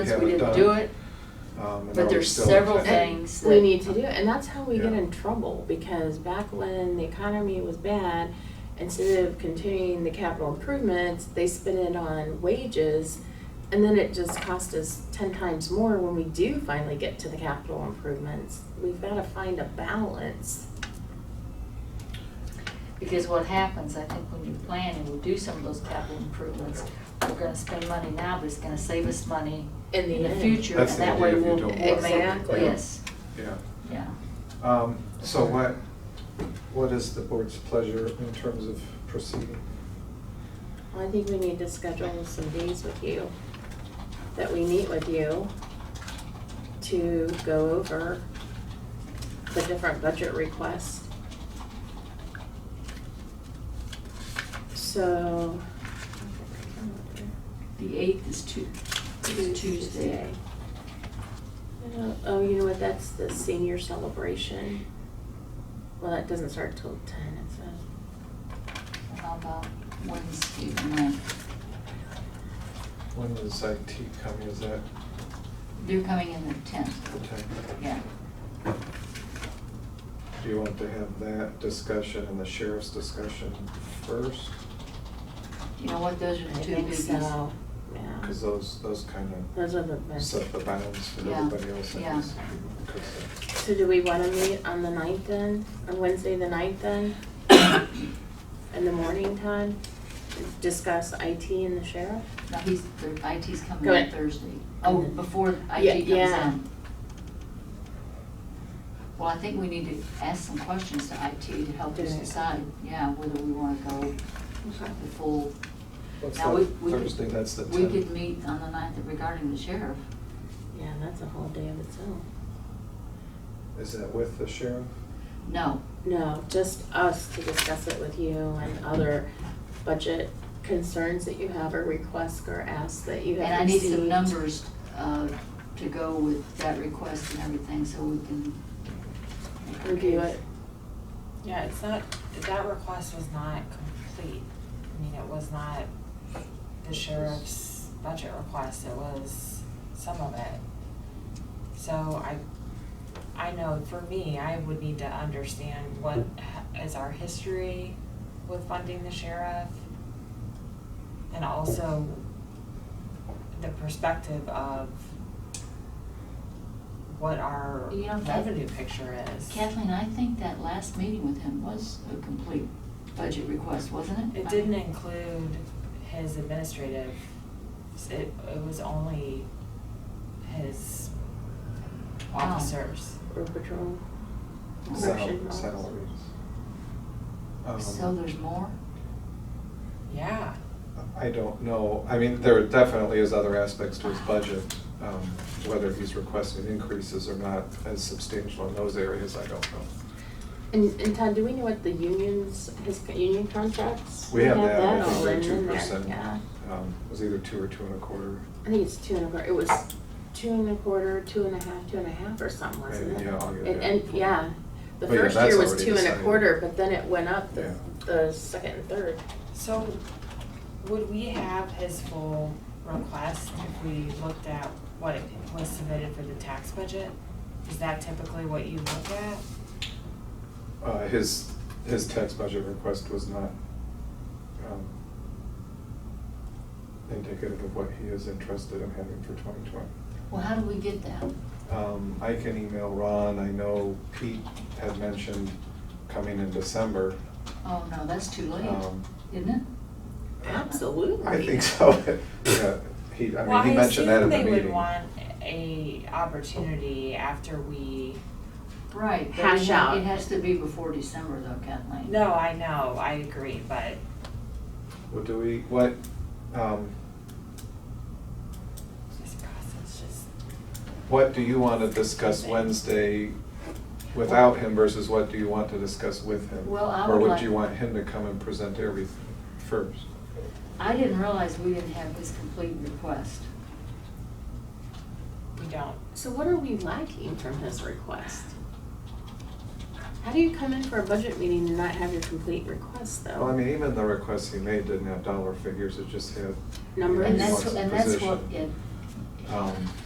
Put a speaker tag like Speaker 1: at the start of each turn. Speaker 1: Since
Speaker 2: haven't
Speaker 1: we didn't
Speaker 2: done.
Speaker 1: do it,
Speaker 2: Um, and
Speaker 1: but
Speaker 2: now we
Speaker 1: there's
Speaker 2: still
Speaker 1: several
Speaker 2: intend-
Speaker 1: things
Speaker 3: we
Speaker 1: that-
Speaker 3: need to do it, and that's how we get
Speaker 2: Yeah.
Speaker 3: in trouble, because back when the economy was bad, instead of continuing the capital improvements, they spent it on wages, and then it just cost us ten times more when we do finally get to the capital improvements. We've gotta find a balance.
Speaker 1: Because what happens, I think when you plan and we do some of those capital improvements, we're gonna spend money now, but it's gonna save us money
Speaker 3: In the
Speaker 1: in the
Speaker 3: end.
Speaker 1: future.
Speaker 2: That's
Speaker 1: and
Speaker 2: the
Speaker 1: that
Speaker 2: idea
Speaker 1: way
Speaker 2: if you
Speaker 1: we'll
Speaker 2: don't
Speaker 1: we'll
Speaker 3: work.
Speaker 1: make-
Speaker 3: Exactly.
Speaker 1: Yes,
Speaker 2: Yeah.
Speaker 1: yeah.
Speaker 2: Um, so what, what is the board's pleasure in terms of proceeding?
Speaker 3: Well, I think we need to schedule some days with you, that we meet with you to go over the different budget requests. So.
Speaker 1: The eighth is Tu- is Tuesday.
Speaker 3: I don't- Oh, you know what, that's the senior celebration. Well, that doesn't start till ten, it says.
Speaker 1: How about Wednesday the ninth?
Speaker 2: When is IT coming, is that
Speaker 1: They're coming in the tenth,
Speaker 2: the time?
Speaker 1: yeah.
Speaker 2: Do you want to have that discussion and the sheriff's discussion first?
Speaker 1: Uh-huh. You know what, those are
Speaker 3: I
Speaker 1: the two
Speaker 3: think
Speaker 1: biggies.
Speaker 3: so, yeah.
Speaker 2: Because those, those kind
Speaker 3: Those are the
Speaker 2: of
Speaker 3: best.
Speaker 2: set the bounds for
Speaker 1: Yeah,
Speaker 2: everybody else. uh, in
Speaker 1: yeah.
Speaker 2: this. 'Cause,
Speaker 3: So do we wanna meet on the ninth then, on Wednesday the ninth then? In the morning time, discuss IT and the sheriff?
Speaker 1: No, he's, the IT's coming
Speaker 3: Go
Speaker 1: on
Speaker 3: ahead.
Speaker 1: Thursday. Oh, before IT
Speaker 3: Yeah,
Speaker 1: comes
Speaker 3: yeah.
Speaker 1: in. Well, I think we need to ask some questions to IT to help us
Speaker 3: Yeah.
Speaker 1: decide, yeah, whether we wanna go the full.
Speaker 2: What's
Speaker 1: Now, we-
Speaker 2: that,
Speaker 1: we could-
Speaker 2: Thursday, that's the
Speaker 1: We could
Speaker 2: tenth.
Speaker 1: meet on the ninth regarding the sheriff.
Speaker 3: Yeah, that's a whole day of its own.
Speaker 2: Is that with the sheriff?
Speaker 1: No,
Speaker 3: No, just us to discuss it with you and other budget concerns that you have or requests or asks that you
Speaker 1: and I
Speaker 3: have
Speaker 1: need
Speaker 3: received.
Speaker 1: some numbers, uh, to go with that request and everything, so we can. make our
Speaker 3: Review
Speaker 1: case.
Speaker 3: it.
Speaker 4: Yeah, it's not, that request was not complete. I mean, it was not the sheriff's budget request, it was some of it. So I, I know for me, I would need to understand what h- is our history with funding the sheriff? And also the perspective of what our
Speaker 1: You know, Kath-
Speaker 4: revenue picture is.
Speaker 1: Kathleen, I think that last meeting with him was a complete budget request, wasn't it?
Speaker 4: It didn't include his administrative, it, it was only his
Speaker 1: Oh.
Speaker 4: officers.
Speaker 3: Or patrol.
Speaker 2: Sal-
Speaker 3: Correction laws.
Speaker 2: Salaries. Um,
Speaker 1: So there's more?
Speaker 4: Yeah,
Speaker 2: I don't know. I mean, there definitely is other aspects to his budget, um, whether he's requesting increases or not as substantial in those areas, I don't know.
Speaker 3: And, and Todd, do we know what the unions, his union contracts?
Speaker 2: We have that, I
Speaker 3: all
Speaker 2: think they're
Speaker 3: in
Speaker 2: two
Speaker 3: there,
Speaker 2: percent. um,
Speaker 3: Yeah.
Speaker 2: It was either two or two and a quarter.
Speaker 3: I think it's two and a quarter, it was two and a quarter, two and a half, two and a half or something, wasn't
Speaker 2: Maybe,
Speaker 3: it?
Speaker 2: yeah, I'll get
Speaker 3: And,
Speaker 2: that.
Speaker 3: and, yeah, the
Speaker 2: But yeah,
Speaker 3: first
Speaker 2: that's
Speaker 3: year was
Speaker 2: already
Speaker 3: two and a
Speaker 2: decided.
Speaker 3: quarter, but then it went up the,
Speaker 2: Yeah.
Speaker 3: the second and third.
Speaker 4: so would we have his full request if we looked at what it was submitted for the tax budget? Is that typically what you look at?
Speaker 2: Uh, His, his tax budget request was not um, indicative of what he is interested in having for twenty twenty.
Speaker 1: Well, how do we get that?
Speaker 2: Um, I can email Ron. I know Pete had mentioned coming in December.
Speaker 1: Oh, no, that's too late,
Speaker 2: Um,
Speaker 1: isn't it?
Speaker 3: Absolutely.
Speaker 2: I think so. Yeah, he, I
Speaker 4: Well,
Speaker 2: mean, he mentioned that in the
Speaker 4: I
Speaker 2: meeting.
Speaker 4: assume they would want a opportunity after we
Speaker 1: Right. but it
Speaker 3: Hash
Speaker 1: ha-
Speaker 3: out.
Speaker 1: It has to be before December though, Kathleen.
Speaker 4: No, I know, I agree, but
Speaker 2: What do we, what, um,
Speaker 4: this process just.
Speaker 2: what do you want to discuss Wednesday without him versus what do you want to discuss with him?
Speaker 1: Well, I
Speaker 2: Or
Speaker 1: would
Speaker 2: would
Speaker 1: like-
Speaker 2: you want him to come and present everything first?
Speaker 1: I didn't realize we didn't have his complete request.
Speaker 4: We don't.
Speaker 3: So what are we lacking from his request? How do you come in for a budget meeting and not have your complete request though?
Speaker 2: Well, I mean, even the requests he made didn't have dollar figures, it just had. you know,
Speaker 3: Numbers.
Speaker 2: he
Speaker 1: And that's,
Speaker 2: wants a
Speaker 1: and that's
Speaker 2: position.
Speaker 1: what, it-
Speaker 2: Um,